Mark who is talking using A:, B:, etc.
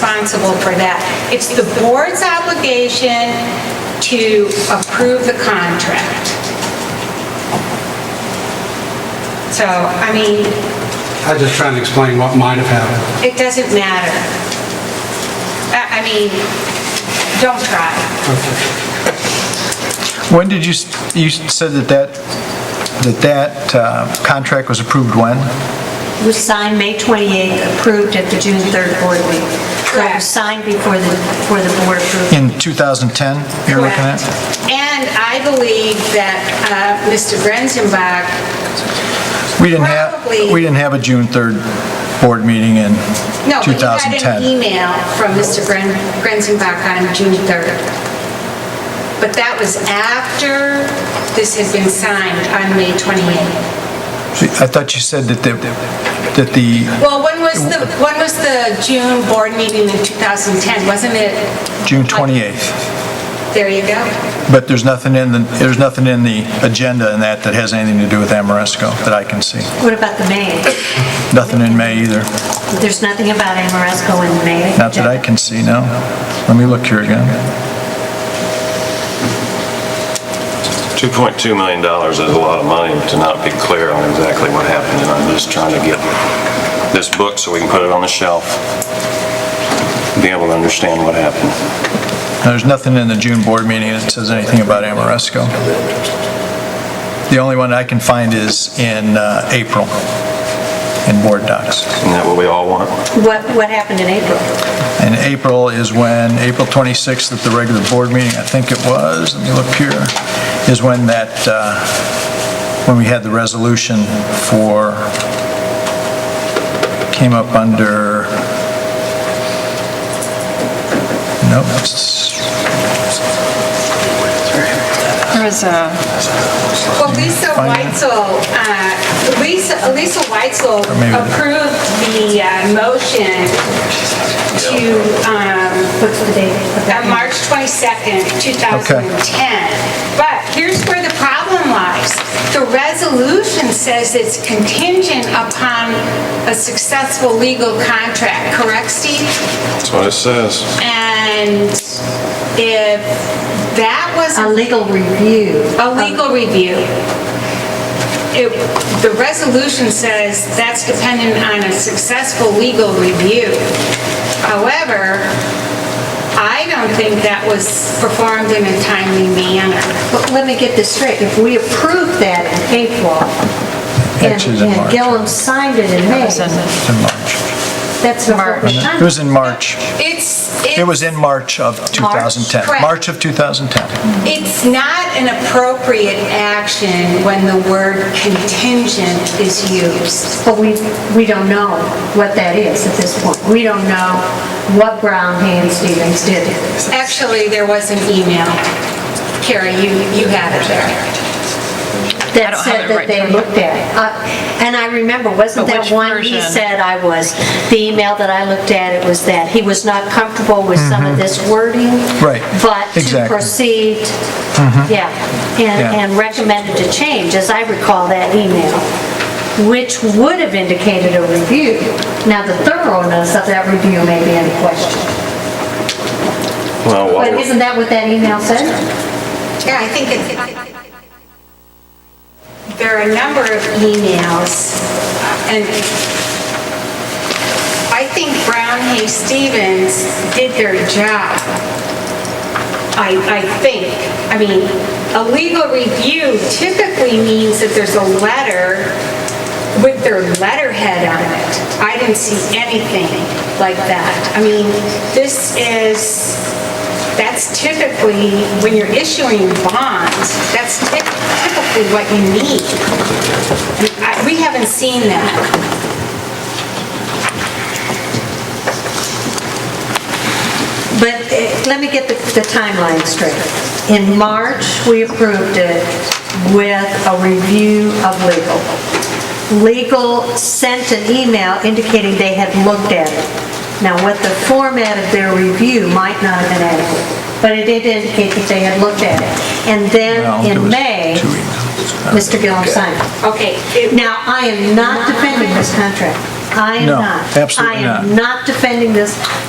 A: responsible for that. It's the board's obligation to approve the contract. So, I mean,
B: I'm just trying to explain what might have happened.
A: it doesn't matter. I I mean, don't try.
C: When did you, s- you said that that, that that uh, contract was approved when?
D: was signed May 28th, approved at the June 3rd board meeting. So it
A: Correct.
D: was signed before the, before the board approved.
C: In 2010, you're looking at?
A: And I believe that uh, Mr. Brenzenbach,
C: We didn't have,
A: Probably-
C: we didn't have a June 3rd board meeting in
A: no, but you got an
C: 2010.
A: email from Mr. Bren- Brenzenbach on June 3rd. But that was after this had been signed on May 28th.
C: I thought you said that the, that the
A: Well, when was the, when was the June board meeting in 2010? Wasn't it,
C: June 28th,
A: there you go.
C: but there's nothing in the, there's nothing in the agenda in that that has anything to do with Amoresco that I can see.
D: What about the May?
C: Nothing in May either,
D: There's nothing about Amoresco in May?
C: not that I can see, no. Let me look here again.
E: 2.2 million dollars is a lot of money to not be clear on exactly what happened, and I'm just trying to get this book so we can put it on the shelf, be able to understand what happened.
C: There's nothing in the June board meeting that says anything about Amoresco. The only one I can find is in uh, April, in board docs.
E: Isn't that what we all want?
D: What, what happened in April?
C: And April is when, April 26th at the regular board meeting, I think it was, let me look here, is when that, uh, when we had the resolution for, came up under, nope, it's-
F: There was a,
A: Well, Lisa
C: Finance.
A: Weitzel, uh, Lisa, Lisa Weitzel
C: maybe the-
A: approved the uh, motion to, um,
D: What's the date? of that?
A: on March 22nd, 2010. But here's where the problem lies. The resolution says it's contingent upon a successful legal contract, correct, Steve?
E: That's what it says.
A: And if that was
D: A legal review.
A: a legal review. It- The resolution says that's dependent on a successful legal review. However, I don't think that was performed in a timely manner.
D: But let me get this straight, if we approved that in April, and
C: Actually, it's in
D: and
C: March.
D: Gillum signed it in May,
F: was in-
C: it's in March.
D: that's a
F: March.
C: It was in March.
A: It's,
C: It was
A: it's,
C: in March of 2010.
A: correct.
C: March of 2010.
A: it's not an appropriate action when the word contingent is used.
D: But we, we don't know what that is at this point. We don't know what Brown Hand Stevens did.
A: Actually, there was an email. Carrie, you, you have it there.
F: I
D: That
F: don't have
D: said
F: it
D: that
F: right
D: they
F: in front of me.
D: looked at. Uh, And I remember, wasn't
F: But
D: that
F: which
D: one he
F: version?
D: said I was, the email that I looked at, it was that he was not comfortable with some of this wording.
C: Mm-hmm. Right.
D: But to
C: Exactly. Mm-hmm.
D: proceed, yeah, and,
C: Yeah.
D: and recommended to change, as I recall that email, which would have indicated a review. Now, the thoroughness of that review may be in question.
E: Well,
D: But
E: what-
D: isn't that what that email said?
A: Yeah, I think it, there are a number of emails, and I think Brown, Hay, Stevens did their job. I, I think, I mean, a legal review typically means that there's a letter with their letterhead on it. I didn't see anything like that. I mean, this is, that's typically, when you're issuing bonds, that's typ- typically what you need. I- We haven't seen that.
D: But eh, let me get the the timeline straight. In March, we approved it with a review of legal. Legal sent an email indicating they had looked at it. Now, what the format of their review might not have been adequate, but it did indicate that they had looked at it. And then
C: No, it
D: in
C: was
D: May,
C: two emails.
D: Mr. Gillum signed it.
A: Okay, it-
D: Now, I am not defending this contract. I am
C: No,
D: not.
C: absolutely
D: I
C: not.
D: am not defending this